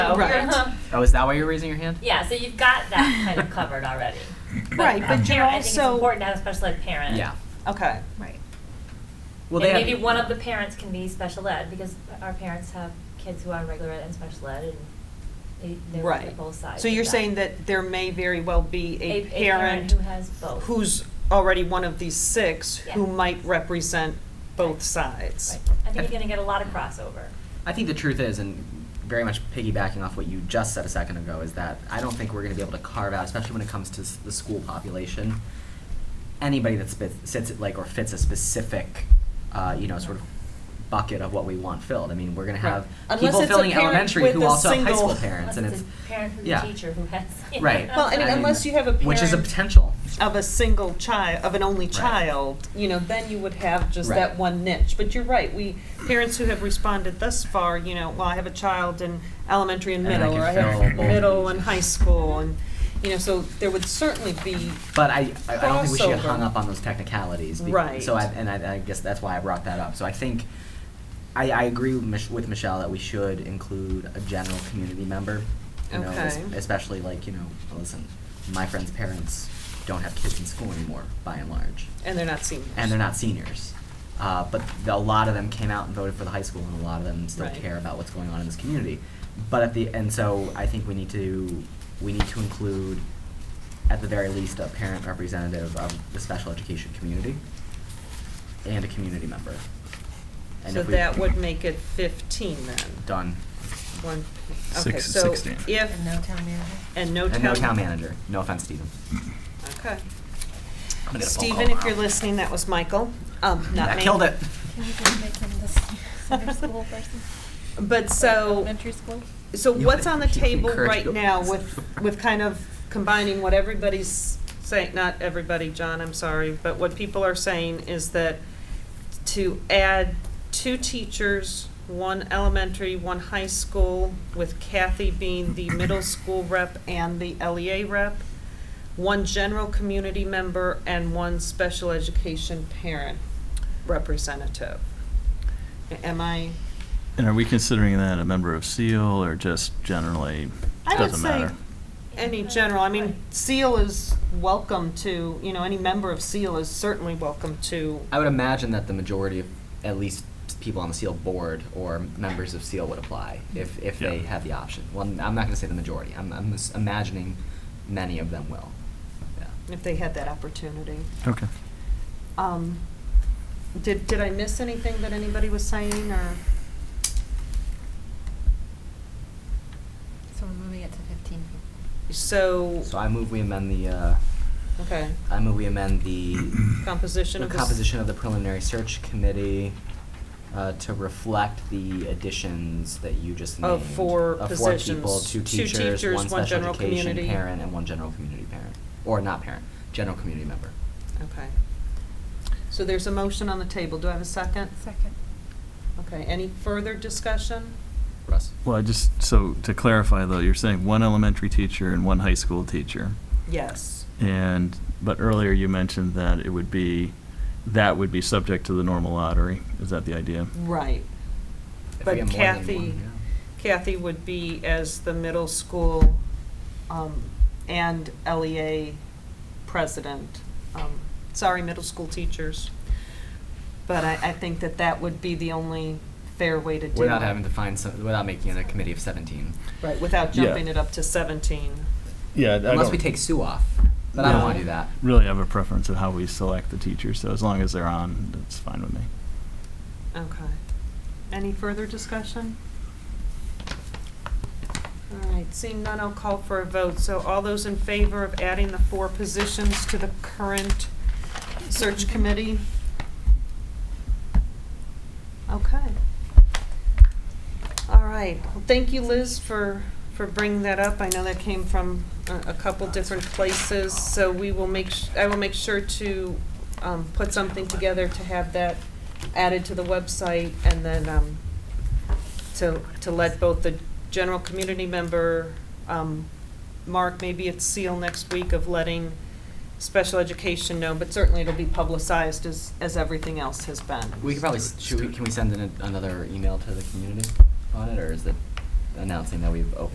so. Right. Oh, is that why you're raising your hand? Yeah, so you've got that kind of covered already. Right, but you're Parent, I think it's also, important to have a special ed parent. Yeah. okay, Right. Well, and they maybe have, one of the parents can be special ed because our parents have kids who are regular ed and special ed, and they, they look right. at both sides. So of you're saying that there may very well be a parent who has both. who's already one of these six who Yeah. might represent both sides. Right. I think you're going to get a lot of crossover. I think the truth is, and very much piggybacking off what you just said a second ago, is that I don't think we're going to be able to carve out, especially when it comes to s- the school population, anybody that spits, sits at, like or fits a specific, uh, you know, sort of bucket of what we want filled. I mean, we're going to have Right. Unless people it's a filling parent elementary with who a also have high single- school parents, and Unless it's a parent who's yeah. a teacher who has. right. Well, I mean, unless you have a which is a parent- potential. Of a single child, of an only Right. child, you know, then you would have just Right. that one niche. But you're right, we, parents who have responded thus far, you know, well, I have a child in elementary and And I middle, can or I fill have both. middle and high school, and, you know, so there would certainly be But I, I I don't think we should get Crossover. hung up on those technicalities. bec- Right. So I, and I, I guess that's why I brought that up. So I think, I, I agree with, Mich- with Michelle that we should include a general community member. You know, es- Okay. especially like, you know, listen, my friend's parents don't have kids in school anymore, by and large. And they're not seniors. And they're not seniors. Uh, but the, a lot of them came out and voted for the high school, and a lot of them still Right. care about what's going on in this community. But at the and so I think we need to we need to include at the very least a parent representative of the special education community and a community member. And So if we- that would make it fifteen then. done. One, okay, Six- so sixteen. if, And no town manager. and no town. And no town manager. No offense, Stephen. Okay. I'm gonna get a phone Stephen, call if you're now. listening, that was Michael, um, not me. that killed it. Can we just make him the center school person? But so, Elementary school? so You what's would- on the you table encourage right your- now with, with kind of combining what everybody's saying, not everybody, John, I'm sorry, but what people are saying is that to add two teachers, one elementary, one high school, with Kathy being the middle school rep and the LEA rep, one general community member, and one special education parent representative. Am I? And are we considering that a member of SEAL or just generally, I would doesn't say matter? any general, I mean, SEAL is welcome to, you know, any member of SEAL is certainly welcome to, I would imagine that the majority of at least people on the SEAL board or members of SEAL would apply if, if they Yeah. had the option. Well, I'm not going to say the majority. I'm, I'm just imagining many of them will. Yeah. if they had that opportunity. Okay. Um, Did, did I miss anything that anybody was saying, or? So we're moving it to fifteen people. So, So I move we amend the, uh, okay, I move we amend the, composition the of this. composition of the preliminary search committee uh, to reflect the additions that you just named. Of four Of four people, positions. two Two teachers, teachers, one one special general education community. parent, and one general community parent. Or not parent, general community member. Okay. So there's a motion on the table, do I have a second? Second. Okay, any further discussion? Russ? Well, I just, so to clarify though, you're saying one elementary teacher and one high school teacher. Yes. And, but earlier you mentioned that it would be, that would be subject to the normal lottery. Is that the idea? Right. If we But have more than Kathy, one, yeah. Kathy would be as the middle school um, and LEA president. Um, Sorry, middle school teachers. But I, I think that that would be the only fair way to do it. Without having to find some, without making it a committee of seventeen. Right, without Yeah. jumping it up to 17. Yeah. Unless we take Sue off, but I don't wanna do that. Really have a preference of how we select the teachers, so as long as they're on, it's fine with me. Okay. Any further discussion? All right, seeing none, I'll call for a vote. So all those in favor of adding the four positions to the current search committee? Okay. All right. Well, Thank you, Liz, for, for bringing that up. I know that came from a, a couple different places, so we will make, s- I will make sure to, um, put something together to have that added to the website and then, um, to, to let both the general community member, um, Mark, maybe it's seal next week of letting special education know, but certainly it'll be publicized as, as everything else has been. We could probably, s- should we, can we send in a- another email to the community on it, or is it announcing that we've opened